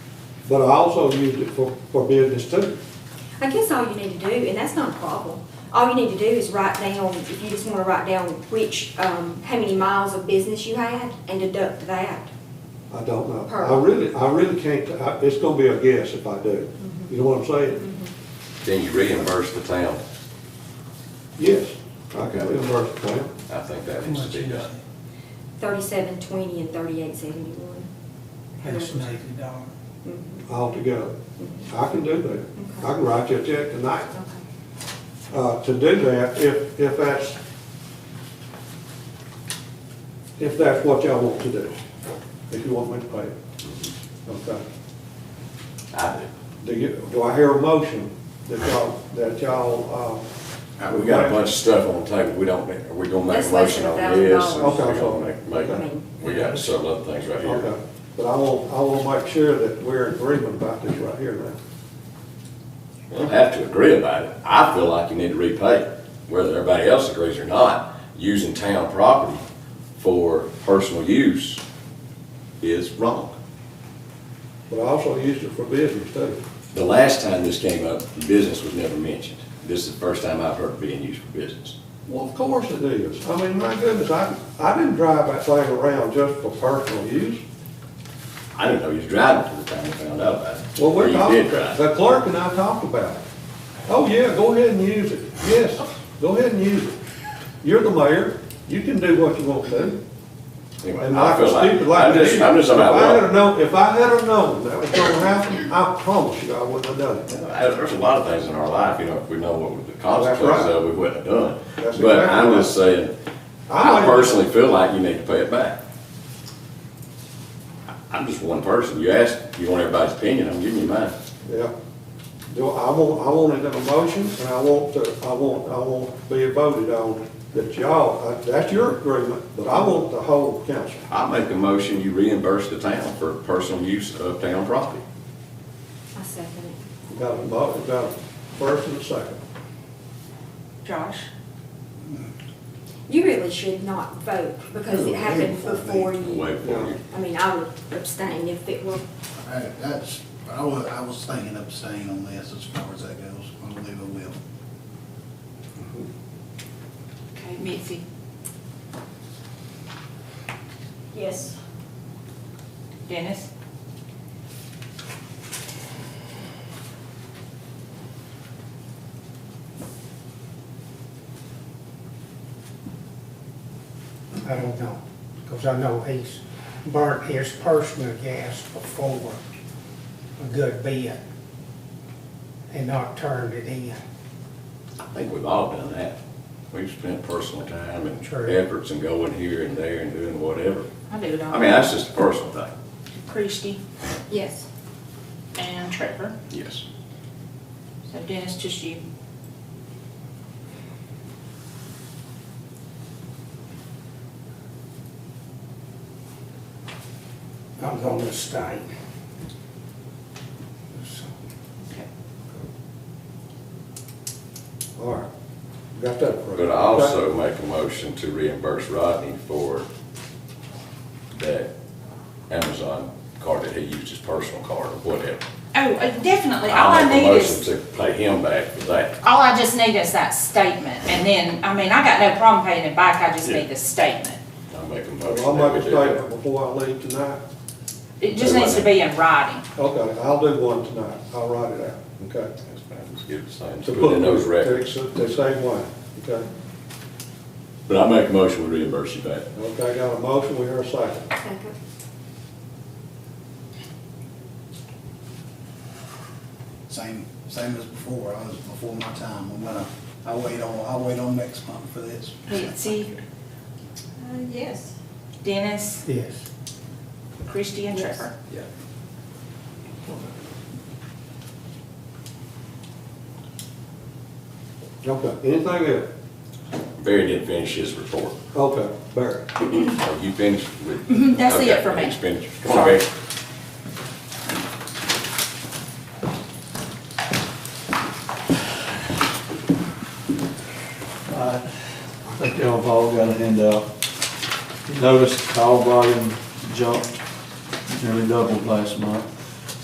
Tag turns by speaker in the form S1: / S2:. S1: but I also used it for, for business too.
S2: I guess all you need to do, and that's not a problem, all you need to do is write down, if you just wanna write down which, um, how many miles of business you had and deduct that.
S1: I don't know. I
S2: Pearl.
S1: really, I really can't, I- it's gonna be a guess if I do. You know what I'm saying?
S3: Then you reimburse the town.
S1: Yes, I can
S3: Okay.
S1: reimburse the town.
S3: I think that needs to be done.
S2: Thirty-seven twenty and thirty-eight seventy-one.
S4: That's an eighty dollar.
S1: Mm-hmm. altogether. I can do that. I can write you a check tonight.
S2: Okay.
S1: Uh, to do that, if, if that's, if that's what y'all want to do, if you want me to pay it. Okay.
S3: I
S1: Do you, do I hear a motion that y'all, that y'all, uh,
S3: do. Uh, We got a bunch of stuff on the table, we don't, make- we gonna make a
S2: That's less
S3: motion
S2: than
S3: on this.
S2: $1,000.
S3: and we gonna make- make-
S2: Okay.
S3: We got several other things
S1: uh,
S3: right here.
S1: okay. But I will, I will make sure that we're in agreement about this right here now.
S3: We'll have to agree about it. I feel like you need to repay, it, whether everybody else agrees or not. Using town property for personal use is wrong.
S1: But I also used it for business too.
S3: The last time this came up, business was never mentioned. This is the first time I've heard it being used for business.
S1: Well, of course it is. I mean, my goodness, I, I didn't drive that thing around just for personal use.
S3: I didn't know you was driving till the time we found out about it.
S1: Well,
S3: Or
S1: we
S3: you
S1: talked,
S3: did drive.
S1: the clerk and I talked about it. Oh, yeah, go ahead and use it. Yes, go ahead and use it. You're the mayor, you can do what you want to.
S3: Anyway,
S1: And
S3: I
S1: not
S3: feel
S1: stupid
S3: like,
S1: like
S3: I'm
S1: that.
S3: just, I'm just
S1: If I
S3: about
S1: had
S3: one.
S1: have known, if I had have known that was gonna happen, I promise you I wouldn't have done it.
S3: There's a lot of things in our life, you know, if we know what the consequences
S1: right.
S3: of, we wouldn't have done.
S1: That's
S3: But
S1: exactly
S3: I'm
S1: right.
S3: just saying,
S1: I
S3: I
S1: like-
S3: personally feel like you need to pay it back. I- I'm just one person. You ask, you want everybody's opinion, I'm giving you mine.
S1: Yeah. Do, I want, I want it in a motion, and I want to, I want, I want to be voted on that y'all, uh, that's your agreement, but I want the whole council.
S3: I make a motion, you reimburse the town for personal use of town property.
S2: I second it.
S1: We Got a, mo- we got a first and a second.
S2: Josh? You really should not vote because it happened before
S3: Wait
S2: you.
S3: for you.
S2: I mean, I would abstain if it were,
S5: Hey, That's, I was, I was thinking of staying on this as far as that goes, I believe I will.
S6: Okay, Mitzi?
S7: Yes.
S6: Dennis?
S8: I don't know, because I know he's burnt his personal gas before a good bit and not turned it in.
S3: I think we've all done that. We've spent personal time and
S8: True.
S3: efforts and going here and there and doing whatever.
S6: I do it all.
S3: I mean, that's just a personal thing.
S6: Christie
S2: yes.
S6: and Trevor.
S3: Yes.
S6: So Dennis, just you.
S8: I'm gonna stay. So,
S6: Okay.
S1: All right, got that approved.
S3: But I also make a motion to reimburse Rodney for that Amazon card that he used, his personal card or whatever.
S6: Oh, uh, definitely, all
S3: I
S6: I
S3: make a
S6: need
S3: motion
S6: is,
S3: to pay him back for that.
S6: all I just need is that statement, and then, I mean, I got no problem paying it back, I just
S3: Yeah.
S6: need the statement.
S3: I make a motion.
S1: I'll
S3: that
S1: make a
S3: we do that.
S1: statement before I leave tonight.
S6: It just needs to be in writing.
S1: Okay, I'll do one tonight. I'll write it out, okay?
S3: That's fine, just give it the same,
S1: To
S3: just put it in those
S1: put- to-
S3: records.
S1: The same way, okay?
S3: But I make a motion to reimburse you back.
S1: Okay, I got a motion, we hear a second.
S2: Second.
S5: Same, same as before, I was before my time, I'm gonna, I wait on, I wait on next month for this.
S6: Mitzi,
S7: Uh, yes.
S6: Dennis,
S8: Yes.
S6: Christie and Trevor.
S3: Yeah.
S1: Okay, anything else?
S3: Barry didn't finish his report.
S1: Okay, Barry.
S3: Are you finished with?
S6: Mhm, that's it
S3: Okay,
S6: for me.
S3: he's finished. Come on,
S6: Sorry.
S3: Barry.
S9: I think y'all have all got a handout. You Noticed call volume jumped nearly doubled last month.